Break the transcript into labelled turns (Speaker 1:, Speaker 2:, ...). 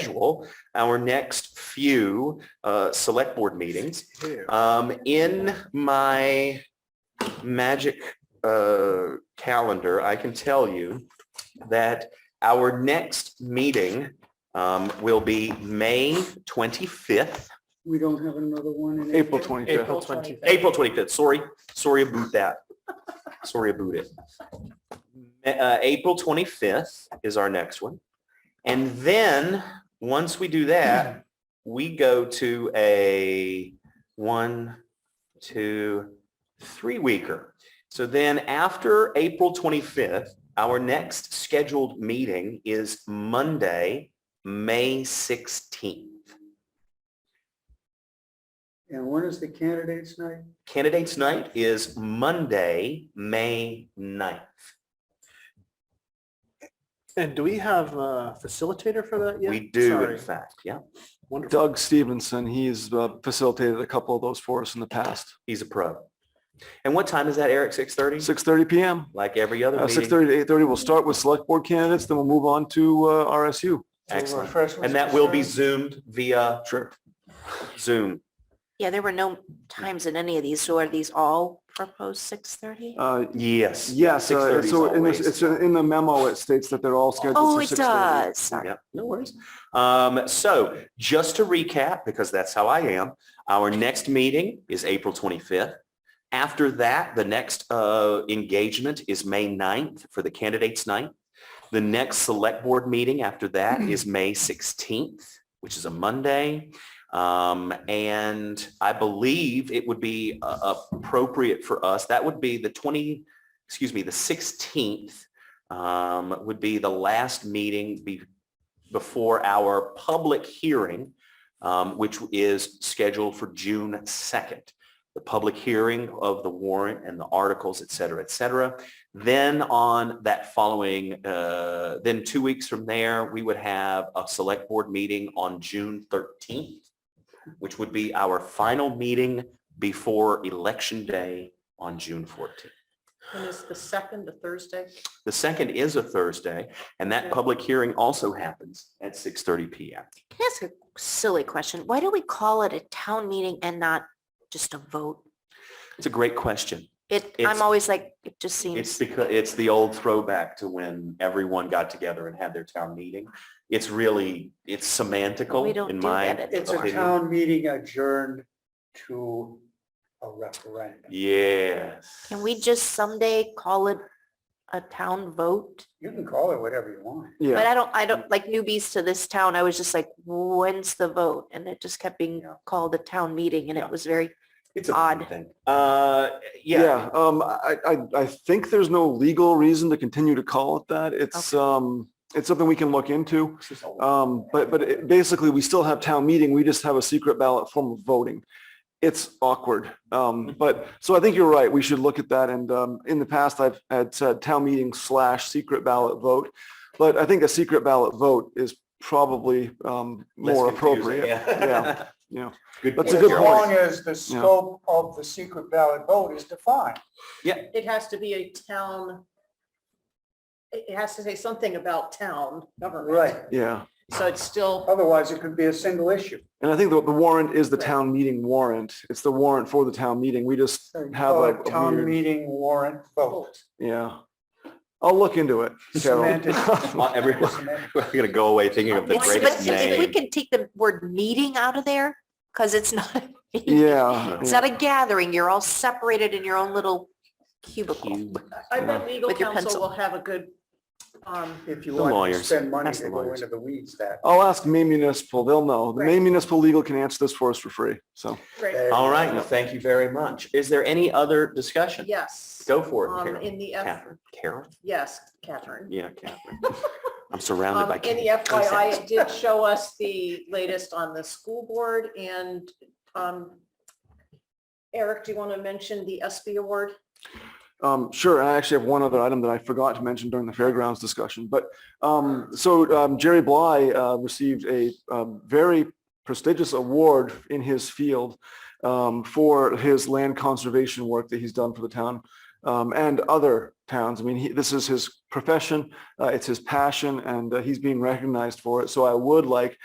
Speaker 1: schedule our next few uh, select board meetings. Um, In my magic uh, calendar, I can tell you that our next meeting um, will be May 25th.
Speaker 2: We don't have another one in.
Speaker 3: April 25th.
Speaker 4: April 25th.
Speaker 1: April 25th, sorry, sorry about that. Sorry about it. Uh, April 25th is our next one. And then, once we do that, we go to a one, two, three weeker. So then after April 25th, our next scheduled meeting is Monday, May 16th.
Speaker 2: And when is the candidates night?
Speaker 1: Candidates night is Monday, May 9th.
Speaker 4: And do we have a facilitator for that yet?
Speaker 1: We do, in
Speaker 4: Sorry.
Speaker 1: fact, yeah.
Speaker 4: Wonderful.
Speaker 3: Doug Stevenson, he's uh, facilitated a couple of those for us in the past.
Speaker 1: He's a pro. And what time is that, Eric? Six thirty?
Speaker 3: 6:30 PM.
Speaker 1: Like every other
Speaker 3: Uh,
Speaker 1: meeting?
Speaker 3: 6:30 to 8:30, we'll start with select board candidates, then we'll move on to uh, RSU.
Speaker 1: Excellent. And that will be zoomed via
Speaker 3: Sure.
Speaker 1: Zoom.
Speaker 5: Yeah, there were no times in any of these, so are these all proposed six thirty?
Speaker 3: Uh,
Speaker 1: Yes.
Speaker 3: Yes,
Speaker 1: Six
Speaker 3: uh,
Speaker 1: thirty is
Speaker 3: so in this,
Speaker 1: always.
Speaker 3: it's uh, in the memo, it states that they're all scheduled
Speaker 5: Oh,
Speaker 3: for
Speaker 5: it
Speaker 3: 6:30.
Speaker 5: does. Sorry.
Speaker 1: Yep, no worries. Um, so just to recap, because that's how I am, our next meeting is April 25th. After that, the next uh, engagement is May 9th for the candidates night. The next select board meeting after that is May 16th, which is a Monday. Um, and I believe it would be uh, appropriate for us, that would be the 20, excuse me, the 16th um, would be the last meeting be, before our public hearing, um, which is scheduled for June 2nd. The public hearing of the warrant and the articles, et cetera, et cetera. Then on that following, uh, then two weeks from there, we would have a select board meeting on June 13th, which would be our final meeting before election day on June 14th.
Speaker 6: And it's the second, the Thursday?
Speaker 1: The second is a Thursday, and that public hearing also happens at 6:30 PM.
Speaker 5: Can I ask a silly question? Why do we call it a town meeting and not just a vote?
Speaker 1: It's a great question.
Speaker 5: It,
Speaker 1: It's-
Speaker 5: I'm always like, it just
Speaker 1: It's
Speaker 5: seems,
Speaker 1: because, it's the old throwback to when everyone got together and had their town meeting. It's really, it's
Speaker 5: we
Speaker 1: semantical
Speaker 5: don't
Speaker 1: in
Speaker 5: do
Speaker 1: my
Speaker 5: that. at
Speaker 2: It's a
Speaker 5: all.
Speaker 2: town meeting adjourned to a referendum.
Speaker 1: Yes.
Speaker 5: Can we just someday call it a town vote?
Speaker 2: You can call it whatever you want.
Speaker 5: But
Speaker 3: Yeah,
Speaker 5: I don't, I don't, like newbies to this town, I was just like, when's the vote? And it just kept being
Speaker 1: Yeah.
Speaker 5: called a town meeting and
Speaker 1: Yeah.
Speaker 5: it was very,
Speaker 1: It's a fun
Speaker 5: Odd.
Speaker 1: thing. Uh, yeah,
Speaker 3: yeah. Um, I, I, I think there's no legal reason to continue to call it that. It's, um, it's something we can look into.
Speaker 1: It's just old.
Speaker 3: Um, but, but it- basically, we still have town meeting. We just have a secret ballot form of voting. It's awkward.
Speaker 1: Mm-hmm.
Speaker 3: Um, but, so I think you're right. We should look at that. And, um, in the past, I've had said town meeting slash secret ballot vote. But I think a secret ballot vote is probably, um,
Speaker 1: Less confusing,
Speaker 3: more appropriate,
Speaker 1: Yeah.
Speaker 3: you know.
Speaker 1: Good
Speaker 3: That's a
Speaker 1: point.
Speaker 3: good
Speaker 2: As
Speaker 3: point.
Speaker 2: long as the scope of the secret ballot vote is defined.
Speaker 6: It has to be a town, it it has to say something about town government.
Speaker 2: Right.
Speaker 3: Yeah.
Speaker 6: So it's
Speaker 1: Oh,
Speaker 6: still,
Speaker 2: Otherwise, it could be a single issue.
Speaker 3: And I think the, the warrant is the town meeting warrant. It's the warrant for the town meeting. We just
Speaker 2: So you
Speaker 3: have
Speaker 2: call
Speaker 3: a
Speaker 2: it
Speaker 3: a
Speaker 2: Town
Speaker 3: weird,
Speaker 2: meeting warrant vote.
Speaker 3: yeah. I'll look into it, Carol.
Speaker 2: Semantic.
Speaker 1: Uh, Everyone, we're gonna go away thinking of the
Speaker 5: It's-
Speaker 1: greatest
Speaker 5: but if we
Speaker 1: name.
Speaker 5: can take the word meeting out of there, because it's not, a meeting,
Speaker 3: Yeah.
Speaker 5: it's not a gathering, you're all separated in your own little cubicle.
Speaker 1: Cube.
Speaker 6: I bet legal
Speaker 5: With your
Speaker 6: counsel
Speaker 5: pencil.
Speaker 6: will have a good, um,
Speaker 2: If you
Speaker 1: The
Speaker 2: want to
Speaker 1: lawyers.
Speaker 2: spend money
Speaker 1: Ask
Speaker 2: to
Speaker 1: the
Speaker 2: go
Speaker 1: lawyers.
Speaker 2: into the weeds, that.
Speaker 3: I'll ask Maine Municipal. They'll know. The
Speaker 6: Right.
Speaker 3: Maine Municipal Legal can answer this for us for free. So
Speaker 6: great,
Speaker 2: there
Speaker 1: All
Speaker 2: you
Speaker 1: right,
Speaker 2: go.
Speaker 1: well, thank you very much. Is there any other discussion?
Speaker 6: yes.
Speaker 1: Go for it,
Speaker 6: Um,
Speaker 1: Carol.
Speaker 6: in the, F
Speaker 1: Catherine. Carol?
Speaker 6: yes, Catherine.
Speaker 1: Yeah, Catherine. I'm surrounded
Speaker 6: Um,
Speaker 1: by.
Speaker 6: in the
Speaker 1: Kate.
Speaker 6: FYI, it did show us the latest on the school board and, um, Eric, do you want to mention the SB award?
Speaker 3: Um, sure, and I actually have one other item that I forgot to mention during the fairgrounds discussion, but, um, so, um, Jerry Bly, uh, received a, um, very prestigious award in his field, um, for his land conservation work that he's done for the town. um, and other towns. I mean, he, this is his profession. Uh, it's his passion and uh, he's being recognized for it. So I would like